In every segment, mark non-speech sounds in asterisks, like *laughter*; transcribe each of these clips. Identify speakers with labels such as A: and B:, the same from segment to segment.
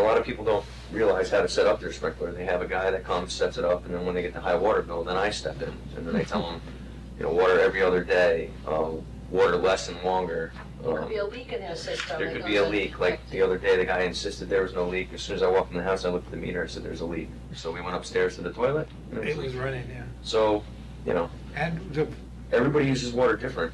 A: lot of people don't realize how to set up their sprinkler. They have a guy that comes, sets it up, and then when they get the high water bill, then I step in. And then I tell them, you know, water every other day, uh, water less and longer.
B: There could
A: Um,
B: be a leak Oh in their system.
A: There
B: and
A: could be a
B: they'll-
A: leak, like the other day, the guy insisted there was no leak. As soon as I walked in the house, I looked at the meter, I said, there's a leak. So we went upstairs to the toilet. and there was
C: It
A: a leak.
C: was running, yeah.
A: So, you know,
C: And the,
A: everybody uses water different.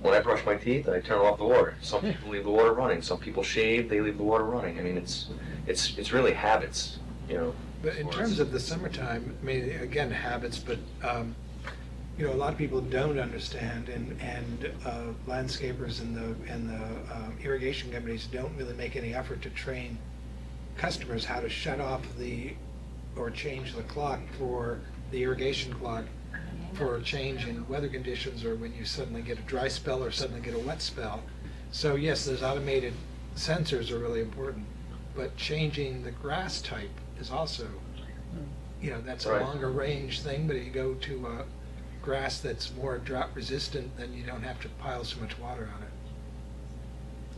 A: When I brush my teeth, I turn off the water. Some people leave the water running. Some people shave, they leave the water running. I mean, it's, it's, it's really habits, you know.
C: but in terms of the summertime, I mean, again, habits, but, um, you know, a lot of people don't understand and, and uh, landscapers and the, and the um, irrigation companies don't really make any effort to train customers how to shut off the, or change the clock for, the irrigation clock for a change in weather conditions or when you suddenly get a dry spell or suddenly get a wet spell. So yes, those automated sensors are really important, but changing the grass type is also, you know, that's a
A: Right.
C: longer range thing, but if you go to a grass that's more drought resistant, then you don't have to pile so much water on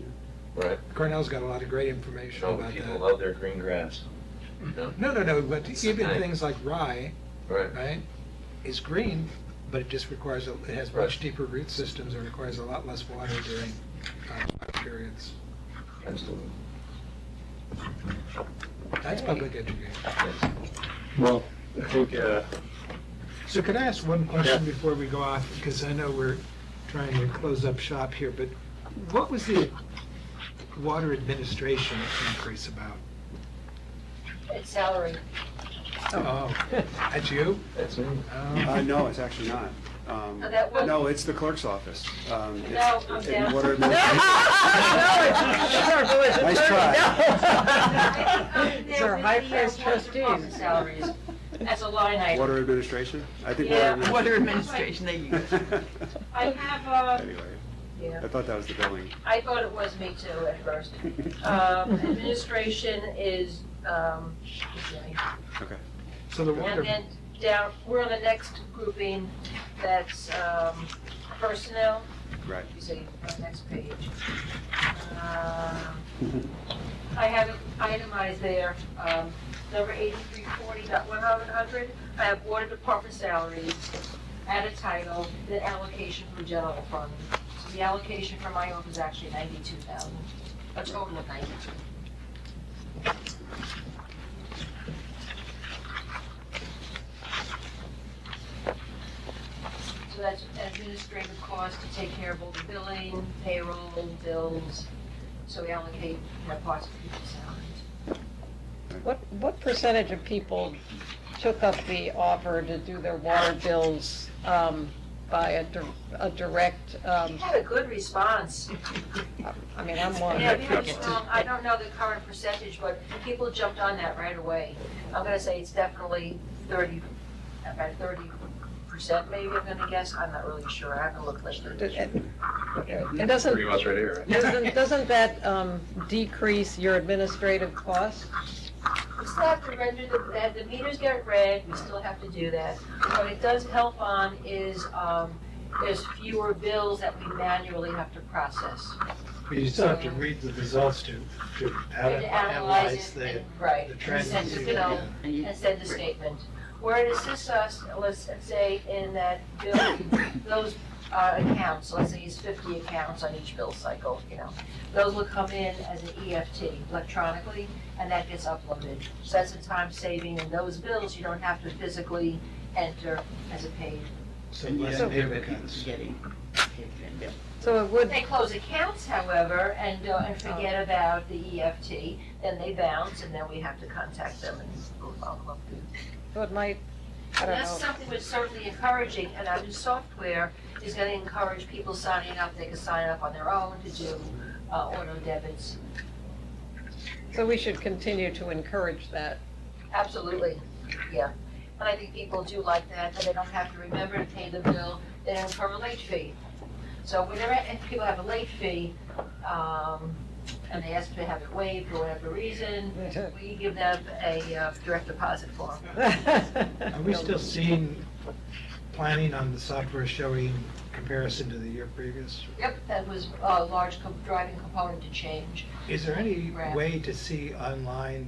C: it.
A: Right.
C: Cornell's got a lot of great information
A: No,
C: about
A: Oh, people
C: that.
A: love their green grass. you know?
C: No, no, no, but
A: It's
C: even
A: okay.
C: things like rye,
A: Right.
C: right, is green, but it just requires, a- it has
A: Right.
C: much deeper root systems, it requires a lot less water during uh, drought periods. *laughs*
A: Absolutely.
C: That's public education.
A: Yes.
D: Well, I think, uh,
C: So could I ask one question
D: Yeah.
C: before we go off, because I know we're trying to close up shop here, but what was the water administration increase about?
B: It's *laughs* salary.
C: Oh, at you?
A: That's me.
D: uh,
C: *laughs* Oh.
D: no, it's actually not. Um,
B: Oh, that was-
D: No, it's the clerk's office. Um, it's-
B: No, I'm
D: it's
B: down. *laughs*
D: water
E: No, it's-
D: *laughs*
E: it's our village
D: Nice try.
E: attorney. No. It's our high priced
B: Office
E: trustees.
B: Salaries, as a line item.
D: Water administration? I think
B: Yeah.
E: Water administration, they use.
D: *laughs*
B: I have, uh,
D: Anyway,
B: yeah,
D: I thought that was the billing.
B: I thought it was me too at first. Um, administration is, um,
D: Okay.
C: So the
B: and
C: water,
B: then down, we're on the next grouping, that's, um, personnel,
D: *laughs* Right.
B: you see, on the next page. Um, I have it itemized there, um, number eighty-three forty dot one hundred. I have water department salaries, add a title, the allocation from general fund. So the allocation for my office is actually ninety-two thousand, a total of ninety-two. So that's administrative costs to take care of all the billing, payroll, bills, so we allocate, you know, parts of people's salaries.
E: What, what percentage of people took up the offer to do their water bills um, by a, dir- a direct, um,
B: Had a good response.
E: I mean, I'm one.
B: Yeah, we had a strong, I don't know the current percentage, but people jumped on that right away. I'm gonna say it's definitely thirty, about thirty percent maybe, I'm gonna guess, I'm not really sure, I haven't looked like
E: It-
B: that.
E: it- It doesn't,
A: much right here.
E: doesn't, doesn't that um, decrease your administrative costs?
B: We still have to render the, that, the meters get read, we still have to do that. What it does help on is, um, there's fewer bills that we manually have to process.
C: you still have to read the results to, to
B: And
C: analyze
B: it
C: the,
B: and- Right,
C: the
B: and
C: trends.
B: send
C: you
B: the
C: see.
B: bill, and send the statement. Where it assists us, let's say in that bill, those uh, accounts, let's say it's fifty accounts on each bill cycle, you know. Those will come in as an EFT electronically, and that gets uploaded. So that's a time saving, and those bills you don't have to physically enter as a page.
C: So less paper cuts.
E: So it would,
B: They close accounts, however, and, uh, and forget about the EFT, then they bounce, and then we have to contact them and we'll follow up.
E: so it might, I don't
B: That's
E: know.
B: something that's certainly encouraging, and our new software is gonna encourage people signing up, they can sign up on their own to do, uh, auto debits.
E: So we should continue to encourage that.
B: Absolutely, yeah. And I think people do like that, that they don't have to remember to pay the bill, they don't incur a late fee. So whenever, if people have a late fee, um, and they ask to have it waived for whatever reason, we give them a uh, direct deposit form.
C: Are we still seeing planning on the software showing comparison to the year previous?
B: Yep, that was a large co- driving component to change.
C: Is there any
B: Right.
C: way to see online